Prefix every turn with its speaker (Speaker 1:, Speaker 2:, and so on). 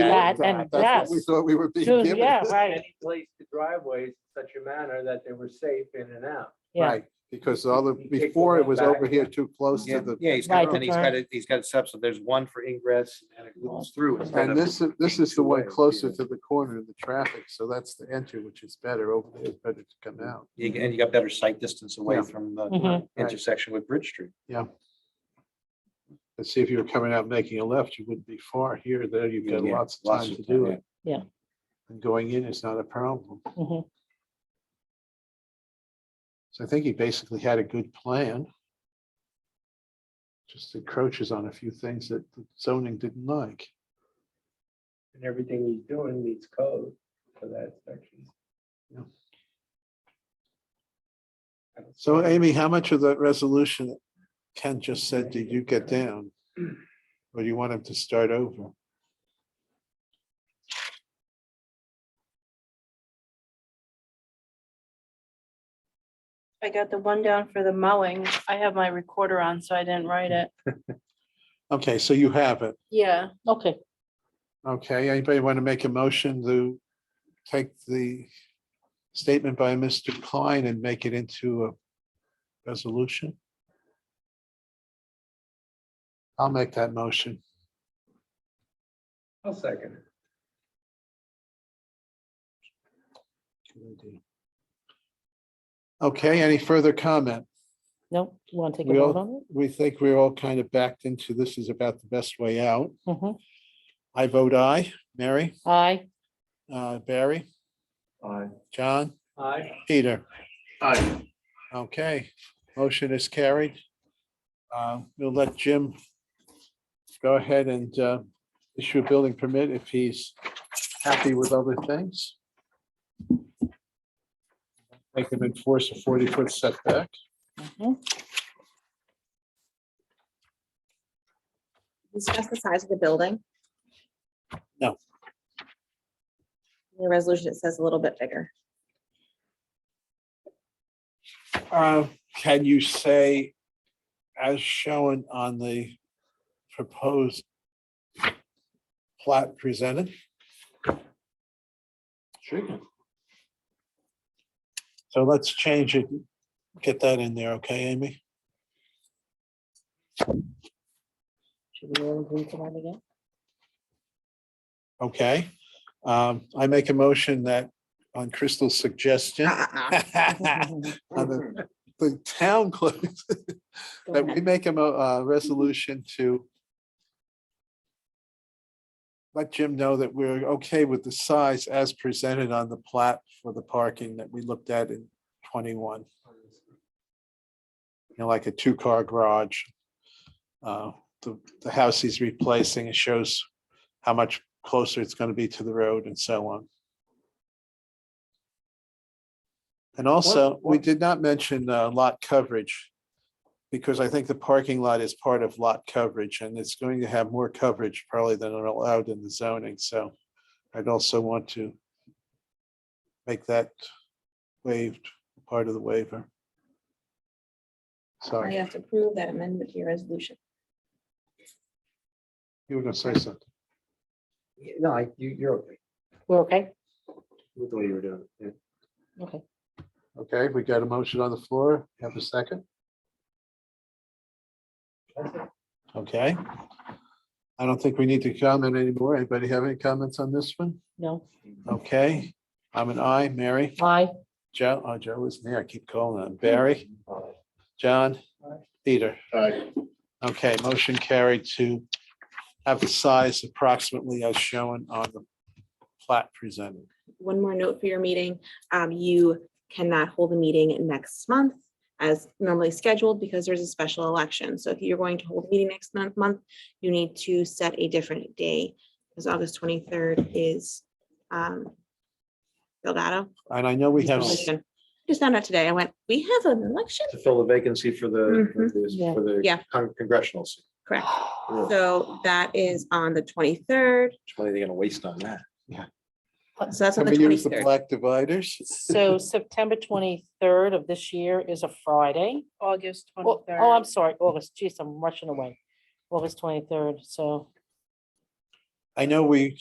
Speaker 1: that
Speaker 2: looked at.
Speaker 1: and
Speaker 2: That's what We
Speaker 1: yes.
Speaker 2: thought we were being
Speaker 1: Ju-
Speaker 2: given.
Speaker 1: Yeah, right,
Speaker 3: any place to driveways in such a manner that they were safe in and out.
Speaker 1: yeah,
Speaker 2: Right, because the other,
Speaker 3: You take the
Speaker 2: before it
Speaker 3: one
Speaker 2: was
Speaker 3: back.
Speaker 2: over here too close to
Speaker 4: Yeah,
Speaker 2: the,
Speaker 4: yeah, he's
Speaker 1: Right,
Speaker 4: got, and he's got,
Speaker 1: okay.
Speaker 4: it- he's got it such that there's one for ingress and it goes through. instead
Speaker 2: and
Speaker 4: of-
Speaker 2: this, is- this is the one
Speaker 4: Two-way.
Speaker 2: closer to the corner of the traffic, so that's the entry, which is better, over there, it's better to come out.
Speaker 4: you g- And you got better sight distance away
Speaker 2: Yeah.
Speaker 4: from the
Speaker 5: Mm-hmm.
Speaker 1: Mhm.
Speaker 4: intersection with Bridge Street.
Speaker 2: Let's see, if you were coming out making a left, you wouldn't be far here, there, you've got
Speaker 4: Yeah,
Speaker 2: lots of
Speaker 4: lots
Speaker 2: time
Speaker 4: of
Speaker 2: to
Speaker 4: time,
Speaker 2: do
Speaker 4: yeah.
Speaker 2: it.
Speaker 1: Yeah.
Speaker 2: And going in is not a problem,
Speaker 1: mhm,
Speaker 2: so I think he basically had a good plan. Just encroaches on a few things that the zoning didn't like.
Speaker 3: And everything he's doing meets code for that section.
Speaker 2: Yeah. So Amy, how much of that resolution that Ken just said, did you get down? Or do you want him to start over?
Speaker 6: I got the one down for the mowing. I have my recorder on, so I didn't write it.
Speaker 2: Okay, so you have it.
Speaker 6: Yeah,
Speaker 1: okay,
Speaker 2: Okay, anybody want to make a motion to take the statement by Mr. Klein and make it into a resolution? I'll make that motion.
Speaker 3: I'll second it.
Speaker 2: Okay, any further comment?
Speaker 1: no, you want to take a
Speaker 2: We all-
Speaker 1: vote on
Speaker 2: We think we're all kind of backed into this is about the best way out.
Speaker 1: it? Mhm.
Speaker 2: I vote aye. Mary?
Speaker 1: Aye,
Speaker 2: Uh, Barry,
Speaker 3: Aye.
Speaker 2: John,
Speaker 3: Aye.
Speaker 2: Peter. Aye. Okay, motion is carried. Uh, We'll let Jim go ahead and uh, issue a building permit if he's happy with other things. Make him enforce a 40-foot setback.
Speaker 5: discuss the size of the building?
Speaker 2: No.
Speaker 5: In The resolution, it says a little bit bigger.
Speaker 2: Uh, Can you say, as shown on the proposed plat presented? Sure. So let's change it, get that in there, okay, Amy?
Speaker 1: should we all agree to that again?
Speaker 2: Okay. Um, I make a motion that on Crystal's suggestion.
Speaker 1: Mm-hmm.
Speaker 2: on the- The town clerk, that we make a mo- uh, resolution to let Jim know that we're okay with the size as presented on the plat for the parking that we looked at in twenty-one. You know, like a two-car garage. Uh, The, the house he's replacing, it shows how much closer it's going to be to the road and so on. And also, we
Speaker 3: what-
Speaker 2: did not mention uh, lot coverage because I think the parking lot is part of lot coverage and it's going to have more coverage probably than are allowed in the zoning. So I'd also want to make that waived, part of the waiver.
Speaker 5: Now You
Speaker 2: Sorry,
Speaker 5: have to prove that amendment to your resolution.
Speaker 2: you were going to say something.
Speaker 3: No, I- you, you're okay
Speaker 1: We're okay,
Speaker 3: with the way you were doing it.
Speaker 1: okay,
Speaker 2: Okay, we got a motion on the floor. Have a second? Okay. I don't think we need to comment anymore. Anybody have any comments on this one?
Speaker 1: no,
Speaker 2: Okay, I'm an I, Mary,
Speaker 1: aye,
Speaker 2: Joe, oh, Joe is there. I keep calling him. Barry, John,
Speaker 3: Aye.
Speaker 2: Peter.
Speaker 3: Aye.
Speaker 2: Okay, motion carried to have the size approximately as shown on the plat presented.
Speaker 5: One more note for your meeting, um, you cannot hold a meeting next month as normally scheduled because there's a special election. So if you're going to hold a meeting next month, month, you need to set a different day. Because August twenty-third is, um, Delgado.
Speaker 2: And I know we have,
Speaker 5: election. Just found out today. I went, we have an election?
Speaker 4: To fill the vacancy for the, for the- for
Speaker 5: Mm-hmm. Yeah.
Speaker 4: the con- congressional seat.
Speaker 5: Correct.
Speaker 4: Ugh,
Speaker 5: So that is on the twenty-third.
Speaker 4: Which money are they gonna waste on that?
Speaker 5: So that's on the
Speaker 2: somebody use the
Speaker 5: twenty-third.
Speaker 2: black dividers.
Speaker 1: so September twenty-third of this year is a Friday.
Speaker 6: August
Speaker 1: Oh,
Speaker 6: twenty-third.
Speaker 1: oh, I'm sorry, August, geez, I'm rushing away, August twenty-third, so.
Speaker 2: I know we